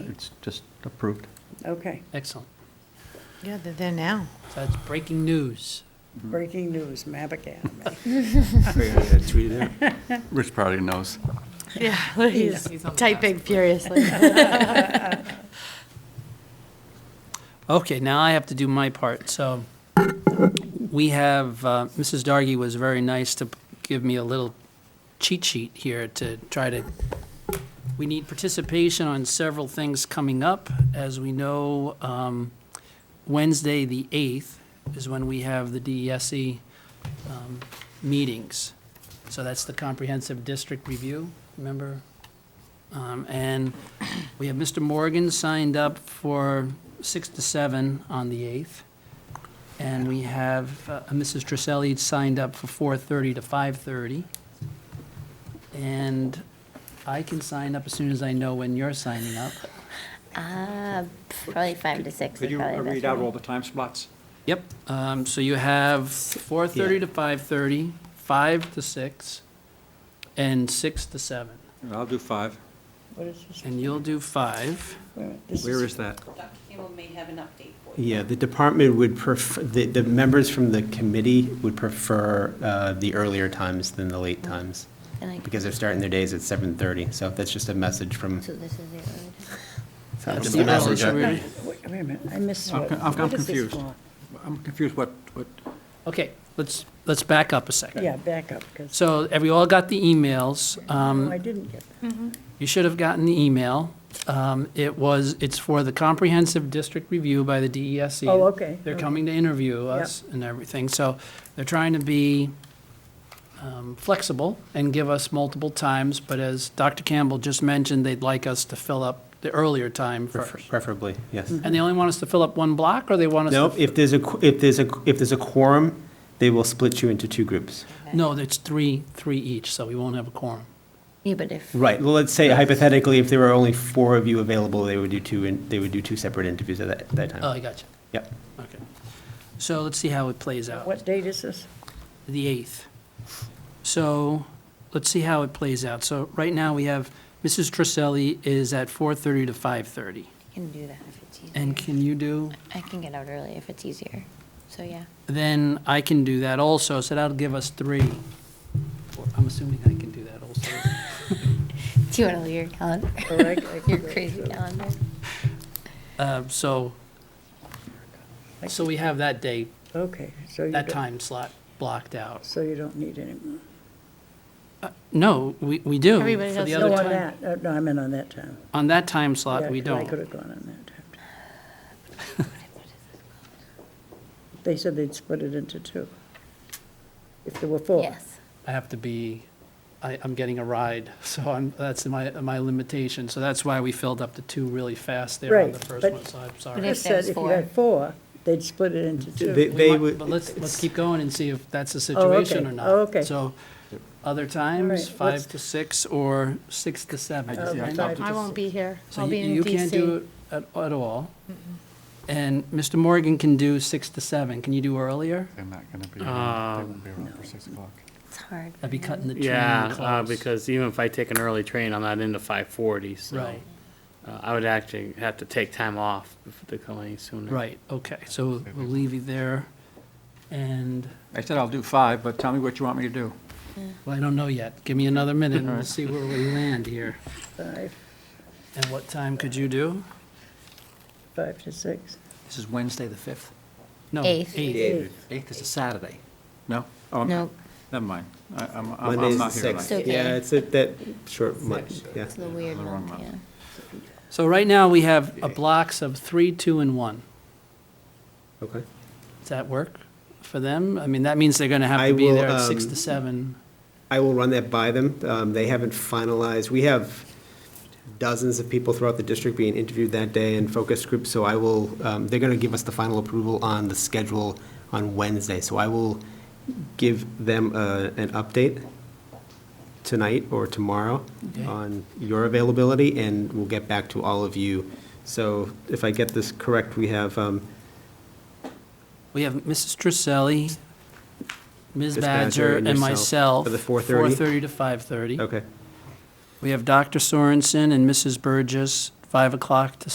it's just approved. Okay, Excellent. Yeah, they're there now. So that's breaking news. breaking news, Mab Academy. Rich probably knows. Yeah, he's typing furiously. Okay, now I have to do my part, so we have, uh, Mrs. Dargy was very nice to give me a little cheat sheet here to try to, we need participation on several things coming up. As we know, um, Wednesday, the 8th, is when we have the DESE E, um, meetings. So that's the comprehensive district review, remember? Um, And we have Mr. Morgan signed up for 6 to 7 on the 8th. And we have uh, Mrs. Trisselli signed up for 4:30 to 5:30. And I can sign up as soon as I know when you're signing up. Uh, probably five to six. Could is you probably the best read out way. all the time slots? Yep, um, so you have 4:30 to 5:30, 5 to 6, and 6 to 7. Uh, I'll do five. What is this? And you'll do 5. Wait a minute, this Where is that? Dr. Campbell may have an update for you. Yeah, the department would prefer, the, the members from the committee would prefer uh, the earlier times than the late times, And I- because they're starting their days at 7:30, so that's just a message from, So this is the early time. just a message. Wait wait a minute, I missed I'm what. con- I'm what is this confused. for? I'm confused what, what, Okay, let's, let's back up a second. Yeah, back up, because, So have you all got the emails? no, I Um, didn't get that. You should have gotten the email. Um, It was, it's for the comprehensive district review by the DESE. Oh, okay, They're okay. coming to interview us and everything, so they're trying to be um, flexible and give us multiple times, but as Dr. Campbell just mentioned, they'd like us to fill up the earlier time first. preferably, yes. Mm-hmm. And they only want us to fill up one block, or they want us to? No, if there's a, qu- if there's a, if there's a quorum, they will split you into two groups. No, it's three, three each, so we won't have a quorum. Yeah, but if, Right, well, let's say hypothetically, if there were only four of you available, they would do two, in- they would do two separate interviews at that, that Oh, I time. got you. Yep. Okay. So let's see how it plays out. What date is this? the 8th. So let's see how it plays out. So right now, we have Mrs. Trisselli is at 4:30 to 5:30. I can do that if it's easier. And can you do? I can get out early if it's easier. So, yeah. Then I can do that also, so that'll give us three. Or I'm assuming I can do that also. Do you want to leave your calendar? Correct, Oh, I can Your go crazy through. calendar? Uh, So, so we have that day, Okay, so you that don't, time slot blocked out. Uh, so you don't need any more. No, we we do. Everybody for has the to other No, on time- that, uh, no, I meant on that time. On that time Yeah, slot, we 'cause I could don't. have gone on that time. They said they'd split it into two. If there were four. Yes. I have to be, I, I'm getting a ride, so I'm, that's my, my limitation. So that's why we filled up the two really fast there on the Right, first but- one, so I'm I But sorry. if just there said was if you had four, they'd split it into two. They, We they might- would. But let's, let's it's- keep going and see if that's the Oh, okay. situation or not. Oh, okay. So, other right, times, let's- five to six or six to seven. I just- yeah, I right? talked I won't be here. So I'll you be in you can't DC. do it at, at all. And Mr. Morgan can do six to seven. Can you do earlier? They're not going to be, around. they won't be around for 6 o'clock. It's hard. That'd be cutting the train Yeah, uh, close. because even if I take an early train, I'm not into five forty, so. Right. uh, I would actually have to take time off if to come any sooner. Right, okay, so we'll leave you there. And I said I'll do five, but tell me what you want me to do. Well, I don't know yet. Give me another minute and we'll see where we land here. Five, And what time could you do? five to six. This is Wednesday, the 5th. No, Eighth. 8th is a Saturday. No? Oh, No, Never mind. I- I'm, I'm- Monday's I'm the not here. sixth. So tonight. can Yeah, I- it's a- that short month, yeah. it's the weird the wrong month, month. yeah. So right now, we have a blocks of three, two, and one. Okay. Does that work for them? I mean, that means they're going to have I to be will, there at six um, to seven. I will run that by them. Um, They haven't finalized, we have dozens of people throughout the district being interviewed that day in focus groups, so I will, um, they're going to give us the final approval on the schedule on Wednesday, so I will give them a- an update tonight or tomorrow Okay. on your availability, and we'll get back to all of you. So if I get this correct, we have um, We have Mrs. Trisselli, Ms. Ms. Badger Badger, and and yourself myself. for the 4:30? 4:30 to 5:30. Okay. We have Dr. Sorensen and Mrs. Burgess, 5 o'clock to